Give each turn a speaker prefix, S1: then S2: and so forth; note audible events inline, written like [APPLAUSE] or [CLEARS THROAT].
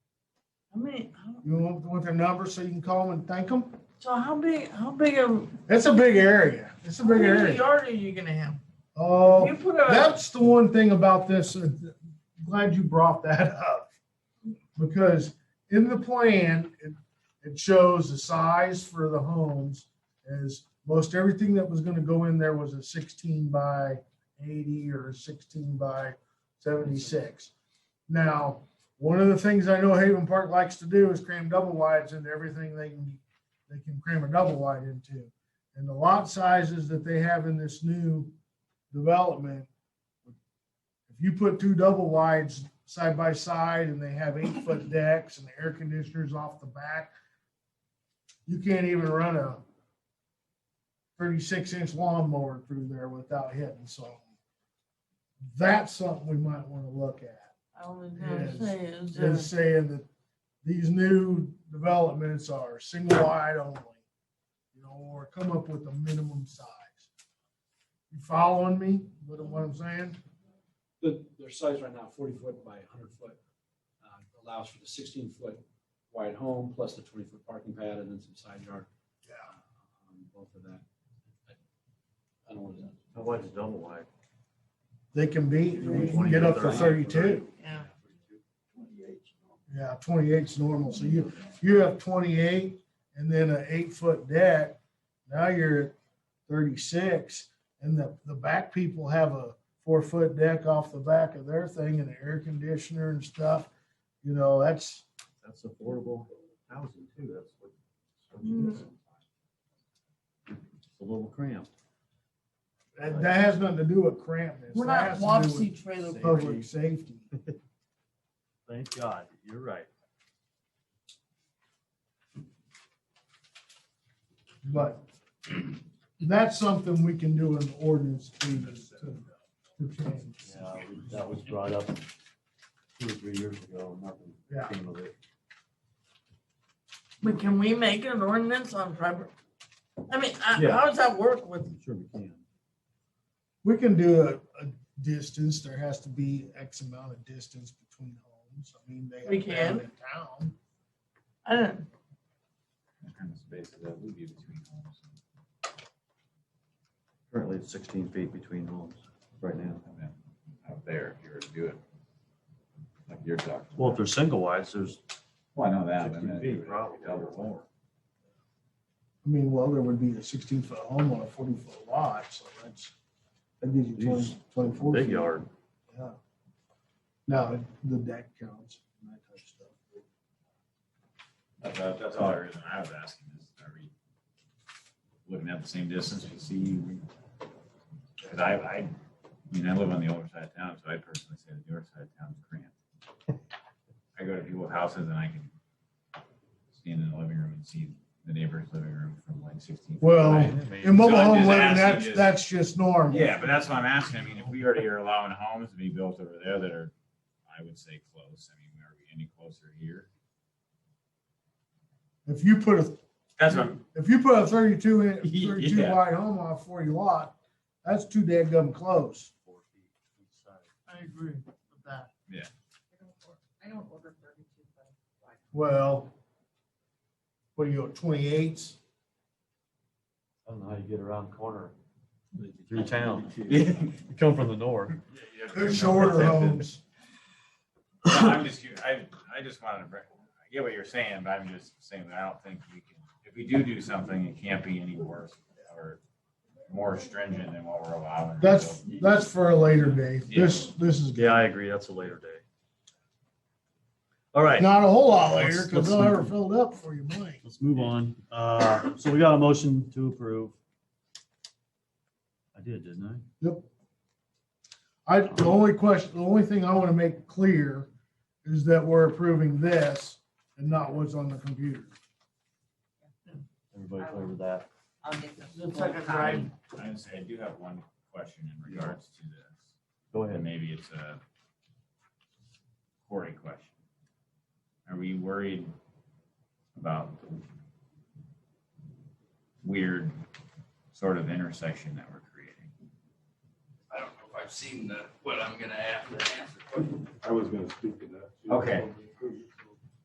S1: I mean, how-
S2: You want, want their number so you can call them and thank them?
S1: so how big, how big of
S2: That's a big area. It's a
S1: how
S2: big
S1: big a
S2: area.
S1: yard are you gonna have?
S2: Oh,
S1: You put a,
S2: that's the one thing about this. uh, Glad you brought that up because in the plan, it, it shows the size for the homes is most everything that was going to go in there was a 16 by 80 or a 16 by 76. Now, one of the things I know Haven Park likes to do is cram double wides into everything they can they can cram a double wide into. And the lot sizes that they have in this new development, if you put two double wides side by side and they have eight foot decks and the air conditioners off the back, you can't even run a thirty-six inch lawnmower through there without hitting something. That's something we might want to look at
S1: I was gonna
S2: Yes.
S1: say is, uh,
S2: is saying that these new developments are single wide only. You know, or come up with a minimum size. You following me with what I'm saying?
S3: The, their size right now, forty foot by hundred foot, uh, allows for the sixteen foot wide home plus the twenty foot parking pad and then some side yard.
S2: Yeah.
S3: on Both of that. I- I don't want to.
S4: How wide is double wide?
S2: They can be, we can get up to thirty-two.
S1: yeah,
S2: Yeah, 28's normal. So you, you have twenty-eight and then an eight-foot deck. Now you're at thirty-six and the, the back people have a four-foot deck off the back of their thing and an air conditioner and stuff. You know, that's,
S4: That's affordable housing too, that's what. that's what you get. It's A little cramped.
S2: That, that has nothing to do with crampness.
S1: we're
S2: That
S1: not
S2: has to
S1: Wapsie
S2: do with
S1: trailer.
S4: Safety.
S1: park.
S2: public safety.
S4: Thank God, you're right.
S2: But [CLEARS THROAT] that's something we can do in the ordinance to, to, to change.
S4: Yeah, we- that was brought up two or three years ago, nothing
S2: Yeah.
S4: came of it.
S1: But can we make an ordinance on private? I mean, I-
S4: Yeah.
S1: how does that work with,
S4: I'm sure we can.
S2: We can do a, a distance. There has to be X amount of distance between homes. I mean, they.
S1: We
S2: have
S1: can.
S2: down in Town.
S1: I don't,
S4: What kind of space is that would be between homes? Currently, it's sixteen feet between homes right now.
S5: out there if you were to do it. Like you're talking.
S4: Well, if they're single wides, there's
S5: Well, I know that, but I
S4: sixteen
S5: mean, it
S4: feet
S5: would
S4: probably.
S5: be double more.
S2: I mean, well, there would be a sixteen foot home on a forty foot lot, so that's, that gives you
S4: Jeez,
S2: twenty, twenty-four.
S4: Big
S2: feet.
S4: yard.
S2: Yeah. Now, the deck counts and that type of stuff.
S5: That's, all- that's all the reason I was asking is, are we, wouldn't have the same distance to see? Cause I, I, I mean, I live on the older side of town, so I personally say the newer side of town is cramped. I go to people's houses and I can stand in the living room and see the neighbor's living room from like sixteen. feet
S2: Well,
S5: away. I mean,
S2: In mobile
S5: so I'm
S2: home
S5: just
S2: living,
S5: asking
S2: that's,
S5: is-
S2: that's just normal.
S5: Yeah, but that's what I'm asking. I mean, if we already are allowing homes to be built over there that are, I would say, close, I mean, are we any closer here?
S2: If you put a,
S5: That's what,
S2: if you put a thirty-two, in-
S5: [LAUGHS] Yeah.
S2: thirty-two wide home on a forty lot, that's too dead gum close.
S1: I agree with that.
S6: I don't order thirty-two, but
S2: Well, what do you, twenty-eights?
S4: I don't know how you get around the corner. Through town. [LAUGHS] You come from the north.
S2: They're shorter homes.
S5: No, I'm just, curious. I, I just wanted to, bring- I get what you're saying, but I'm just saying that I don't think we can, if we do do something, it can't be any worse or more stringent than what we're allowing.
S2: That's, that's for a later day. This, this is
S4: Yeah, I agree. That's a later day. All right,
S2: not a whole lot later,
S4: Let's-
S2: because they'll
S4: let's-
S2: ever fill it up for you, Mike.
S4: let's move on. Uh, so we got a motion to approve. I did, didn't I?
S2: I, the only question, the only thing I want to make clear is that we're approving this and not what's on the computer.
S4: Everybody clear with that?
S6: I'll get the.
S1: Looks like a drive.
S5: I would say, I do have one question in regards to this.
S4: Go
S5: And
S4: ahead.
S5: maybe it's a Corey question. Are we worried about weird sort of intersection that we're creating?
S7: I don't know if I've seen the, what I'm gonna have to answer.
S8: I was gonna speak to that. too.
S5: Okay.